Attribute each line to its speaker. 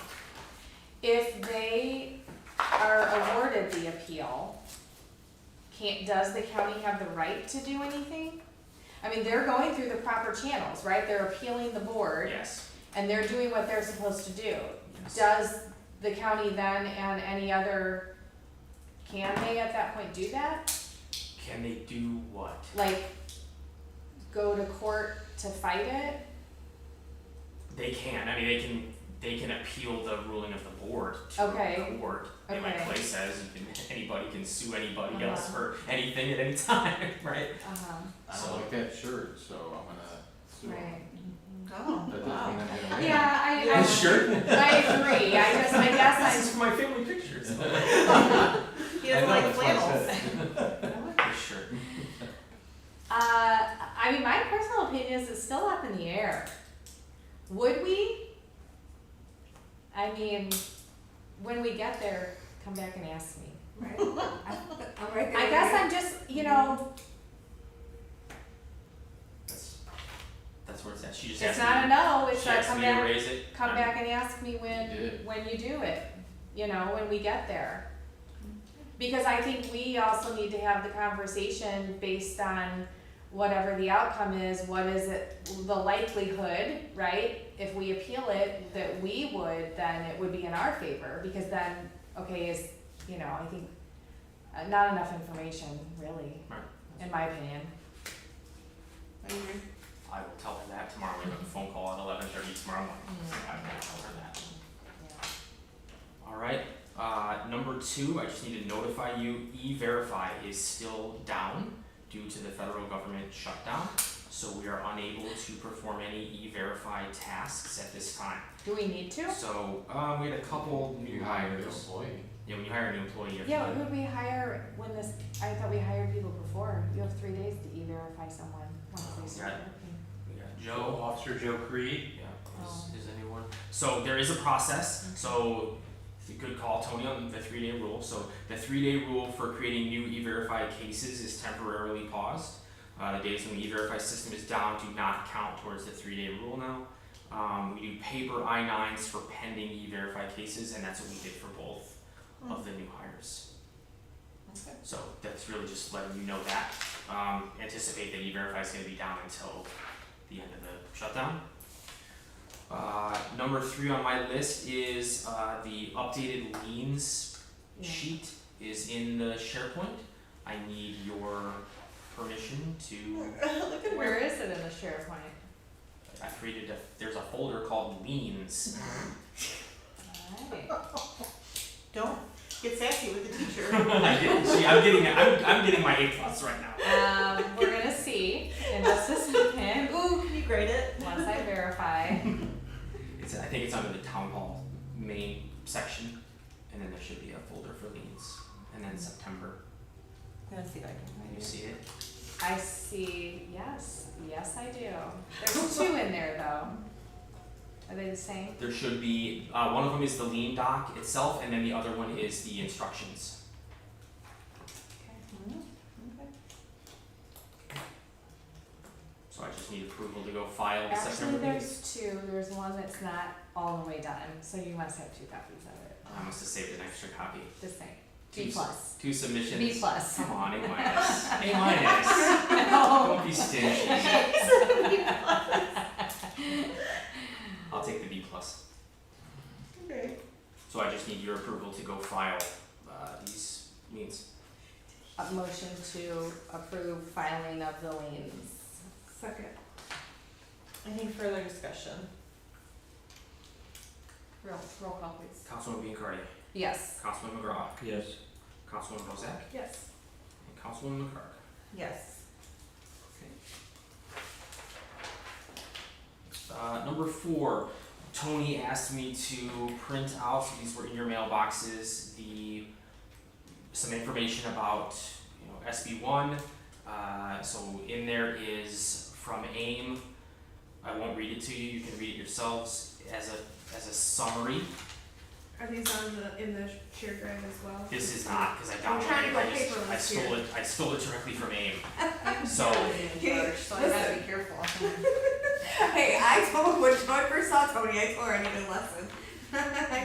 Speaker 1: if they are awarded the appeal, can't, does the county have the right to do anything? I mean, they're going through the proper channels, right? They're appealing the board
Speaker 2: Yes.
Speaker 1: and they're doing what they're supposed to do. Does the county then and any other, can they at that point do that?
Speaker 2: Can they do what?
Speaker 1: Like, go to court to fight it?
Speaker 2: They can. I mean, they can. They can appeal the ruling of the board to
Speaker 1: Okay.
Speaker 2: the court. And my
Speaker 1: Okay.
Speaker 2: place says you can- anybody can sue anybody else
Speaker 1: Uh-huh.
Speaker 2: for anything at any time, right?
Speaker 1: Uh-huh,
Speaker 3: I don't like that shirt, so I'm gonna sue him.
Speaker 1: right.
Speaker 3: That
Speaker 4: Oh,
Speaker 3: doesn't mean I'm
Speaker 4: wow.
Speaker 3: gonna win.
Speaker 1: Yeah, I, I.
Speaker 3: This shirt?
Speaker 1: I agree, I just, I
Speaker 2: This is
Speaker 1: guess
Speaker 2: for my family pictures.
Speaker 4: He
Speaker 3: I know,
Speaker 4: doesn't like
Speaker 3: that's why I
Speaker 4: flannels.
Speaker 3: said
Speaker 2: This shirt.
Speaker 1: I'm, uh, I mean, my personal opinion is it's still up in the air. Would we? I mean, when we get there, come back and ask me.
Speaker 5: Right. I'm right there.
Speaker 1: I guess I'm just, you know,
Speaker 2: That's that's where it's at. She just
Speaker 1: it's
Speaker 2: asked me.
Speaker 1: not a no, it's
Speaker 2: she
Speaker 1: a
Speaker 2: asked
Speaker 1: come
Speaker 2: me to
Speaker 1: back,
Speaker 2: raise it.
Speaker 1: come
Speaker 2: I'm-
Speaker 1: back and ask me when,
Speaker 3: You did.
Speaker 1: when you do it, you know, when we get there. Because I think we also need to have the conversation based on whatever the outcome is, what is it, the likelihood, right? If we appeal it, that we would, then it would be in our favor, because then, okay, is, you know, I think, uh, not enough information, really,
Speaker 2: Right.
Speaker 1: in my opinion.
Speaker 2: I will tell her that tomorrow. We have a phone call at eleven thirty tomorrow morning. So
Speaker 1: Mm.
Speaker 2: I will tell her that. All right. Uh, number two, I just need to notify you, E-Verify is still down due to the federal government shutdown. So we are unable to perform any E-Verify tasks at this time.
Speaker 1: Do we need to?
Speaker 2: So, um, we had a couple new
Speaker 3: You hired an
Speaker 2: hires.
Speaker 3: employee.
Speaker 2: Yeah, when you hire a new employee, you have to.
Speaker 1: Yeah, who'd we hire when this, I thought we hired people before, you have three days to e-verify someone once they start
Speaker 2: Right.
Speaker 1: working.
Speaker 2: We got Joe.
Speaker 3: Officer Joe Creed.
Speaker 2: Yeah, is, is anyone? So there is a process, so it's a good call, Tony, on the three day rule. So the three day rule for creating new E-Verify cases is temporarily paused. Uh, the days when the E-Verify system is down do not count towards the three day rule now. Um, we do paper I-9s for pending E-Verify cases, and that's what we did for both
Speaker 4: Mm.
Speaker 2: of the new hires.
Speaker 4: Okay.
Speaker 2: So that's really just letting you know that. Um, anticipate that E-Verify is gonna be down until the end of the shutdown. Uh, number three on my list is, uh, the updated liens
Speaker 1: Yeah.
Speaker 2: sheet is in the SharePoint. I need your permission to,
Speaker 4: Look at
Speaker 1: Where
Speaker 4: where.
Speaker 1: is it in the SharePoint?
Speaker 2: I created a, there's a folder called liens.
Speaker 1: Alright,
Speaker 4: Don't get sassy with the teacher.
Speaker 2: I did, see, I'm getting, I'm, I'm getting my A plus right now.
Speaker 1: um, we're gonna see in just a second,
Speaker 4: Ooh, can you grade it?
Speaker 1: once I verify.
Speaker 2: It's, I think it's under the town hall main section, and then there should be a folder for liens, and then September,
Speaker 4: I'm gonna see if I can
Speaker 2: you
Speaker 4: find it.
Speaker 2: see it?
Speaker 1: I see, yes, yes I do. There's two in there though. Are they the same?
Speaker 2: There should be, uh, one of them is the lien doc itself, and then the other one is the instructions.
Speaker 4: Mm, okay.
Speaker 2: So I just need approval to go file the
Speaker 1: Actually,
Speaker 2: September liens.
Speaker 1: there's two, there's one that's not all the way done, so you must have two copies of it,
Speaker 2: I must have saved an extra copy.
Speaker 1: the same,
Speaker 2: Two
Speaker 1: B
Speaker 2: s-
Speaker 1: plus,
Speaker 2: Two submissions.
Speaker 1: B plus.
Speaker 2: Come on, A minus, A minus,
Speaker 1: No.
Speaker 2: don't be stingy. I'll take the B plus.
Speaker 4: Okay.
Speaker 2: So I just need your approval to go file, uh, these liens.
Speaker 1: A motion to approve filing of the liens.
Speaker 5: Second.
Speaker 4: Any further discussion? Roll, roll call please.
Speaker 2: Councilman Biancardi,
Speaker 1: Yes.
Speaker 2: Councilman McGraw,
Speaker 3: Yes.
Speaker 2: Councilman Bozak,
Speaker 5: Yes.
Speaker 2: And Councilwoman McCark.
Speaker 4: Yes.
Speaker 2: Uh, number four, Tony asked me to print out, so these were in your mailboxes, the, some information about, you know, SB one. Uh, so in there is from AIM, I won't read it to you, you can read it yourselves, as a, as a summary.
Speaker 5: Are these on the, in the shared drive as well?
Speaker 2: This is not, cause I
Speaker 5: I'm trying to
Speaker 2: downloaded it, I
Speaker 5: go
Speaker 2: just, I
Speaker 5: paperless
Speaker 2: stole
Speaker 5: here.
Speaker 2: it, I stole it directly from AIM. So,
Speaker 4: George, so I gotta be careful.
Speaker 5: Hey, I told, when I first saw Tony, I told her I needed a lesson.